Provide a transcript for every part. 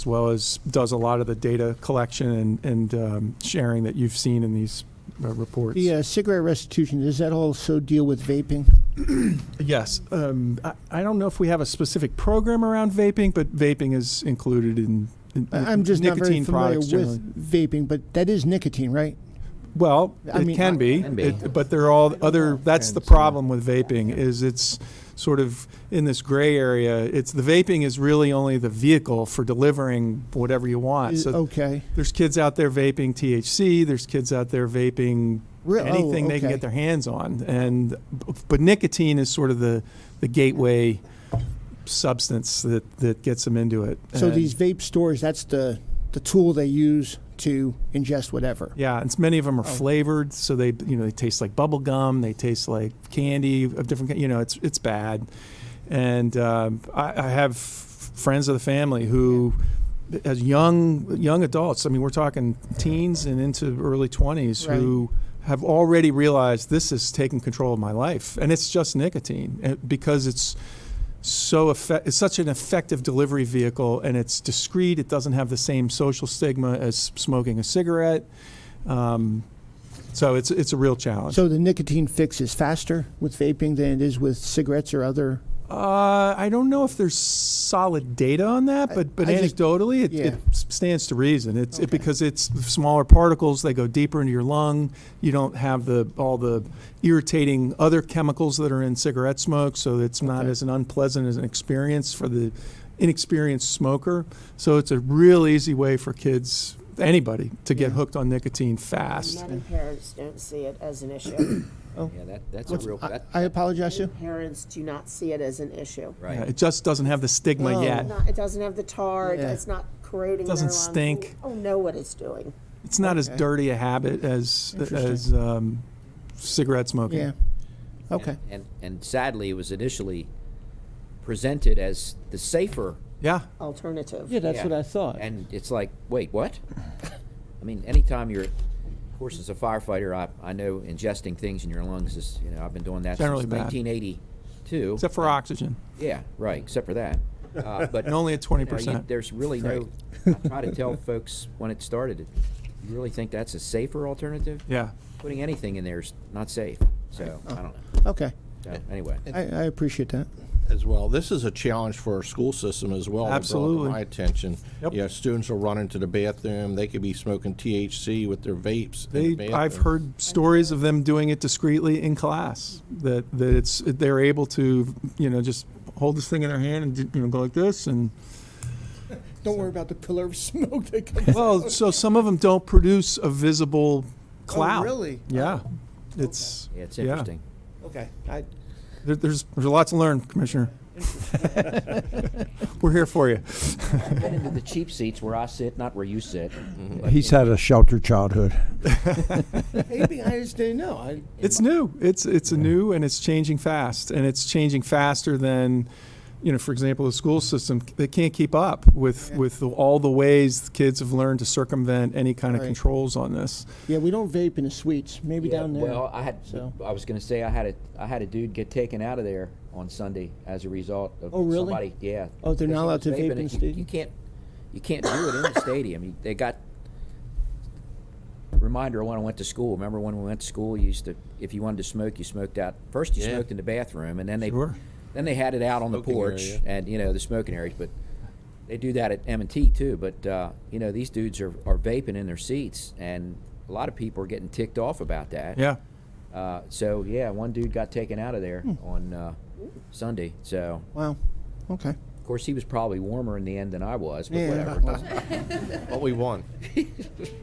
as well as does a lot of the data collection and, and um, sharing that you've seen in these uh, reports. The uh, cigarette restitution, does that also deal with vaping? Yes. Um, I, I don't know if we have a specific program around vaping, but vaping is included in. in I- I'm just not very nicotine familiar products generally. with vaping, but that is nicotine, right? Well, I it mean, can I- be, Can be. It- but there are all other. That's the Depends, yeah. problem with vaping is it's sort of in this gray area. It's the vaping is really only the vehicle for delivering whatever you want. Is- Uh, So Okay. there's kids out there vaping THC. There's kids out there vaping Re- oh, anything they can okay. get their hands on, and but nicotine is sort of the the gateway substance that that gets them into it. So And- these vape stores, that's the, the tool they use to ingest whatever. Yeah, and s- many of them are flavored, so they you know they taste like bubble gum, they taste like candy of different. ki- You know, it's it's bad, and um, I, I have f- friends of the family who, as young young adults, I mean, we're talking teens and into early twenties, who have already realized this is taking control of my life, and it's just nicotine eh, because it's. So effe- it's such an effective delivery vehicle, and it's discreet. It doesn't have the same social stigma as smoking a cigarette. Um, so it's it's a real challenge. So the nicotine fix is faster with vaping than it is with cigarettes or other. uh, I don't know if there's solid data on that, but but I just- anecdotally, it, yeah. it s- stands to reason. It's it, Okay. because it's smaller particles; they go deeper into your lung. You don't have the all the irritating other chemicals that are in cigarette smoke, so it's not Okay. as an unpleasant as an experience for the inexperienced smoker. So it's a real easy way for kids, anybody, to get Yeah. hooked on nicotine fast. Many parents don't see it as an issue. Yeah, that, that's a What's- real, I, that, I apologize to you. Parents do not see it as an issue. Yeah, right. it just doesn't have the stigma No. yet. Not- It doesn't have the tar, Yeah. it's not corroding their Oh. Doesn't lungs. stink. Oh, know what it's doing. It's not as Okay. dirty a habit as Interesting. as um, cigarette smoking. Yeah. Okay. And, and sadly, it was initially presented as the safer, Yeah. Alternative. Yeah, that's Yeah. what I thought. and it's like, wait, what? I mean, anytime you're, of course, as a firefighter, I, I know ingesting things in your lungs is, you know, I've been doing that Generally since bad. nineteen eighty-two. Except for oxygen, Yeah, right, except for that. Uh, But and only at twenty you know, you- percent. There's really no, I try to tell folks when it started, you really think that's a safer alternative? Yeah. Putting anything in there is not safe, so, I don't know. Okay. So, anyway. I, I appreciate that. as well. This is a challenge for our school system as well. They brought it to Absolutely. My attention. Yep. Yeah, students will run into the bathroom. They could be smoking THC with their vapes. in the They, I've bathroom. heard stories of them doing it discreetly in class. That that it's they're able to you know just hold this thing in their hand and do- you know go like this and Don't worry about the pillar of smoke that comes well so some of them don't produce a visible cloud. Oh, really? Yeah. It's Yeah, it's yeah. interesting. Okay. I, There, there's there's a lot to learn, Commissioner. We're here for you. Get into the cheap seats where I sit, not where you sit. but He's had a sheltered childhood. maybe I just didn't know. I, It's new. It's it's a new and it's changing fast, and it's changing faster than, you know, for example, the school system. They can't keep up with with the, all the ways the kids have learned to circumvent any kind of Right. controls on this. yeah, we don't vape in the suites. Maybe Yeah, down there. Well, I had, So. I was gonna say, I had a, I had a dude get taken out of there on Sunday as a result of Oh, really? somebody, yeah. Oh, they're not because he allowed was to vape in vaping it. the You- You stadium? can't, you can't do it in the stadium. You- They got, reminder of when I went to school, remember when we went to school, you used to, if you wanted to smoke, you smoked out, first you Yeah. smoked in the bathroom, and then they, Sure. then they had it out on the Smoking porch, area. and, you know, the smoking areas, but they do that at M&T too, but, uh, you know, these dudes are, are vaping in their seats, and a lot of people are getting ticked off about that. Yeah. Uh, so yeah, one dude got taken out of there on uh, Sunday. So wow. Okay. of course he was probably warmer in the end than I was, but Yeah. whatever. What we want.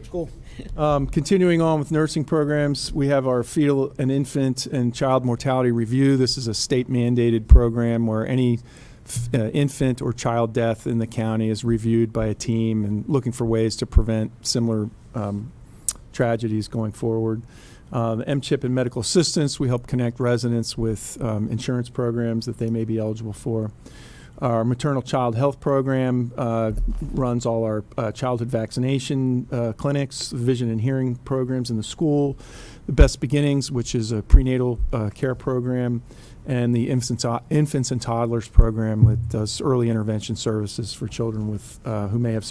Cool. Um, continuing on with nursing programs, we have our fetal and infant and child mortality review. This is a state mandated program where any f- uh, infant or child death in the county is reviewed by a team and looking for ways to prevent similar um, tragedies going forward. Uh, the MCHIP and medical assistance, we help connect residents with um, insurance programs that they may be eligible for. Our maternal child health program uh, runs all our uh, childhood vaccination uh, clinics, vision and hearing programs in the school, the Best Beginnings, which is a prenatal uh, care program, and the infants, infants and toddlers program that does early intervention services for children with uh, who may have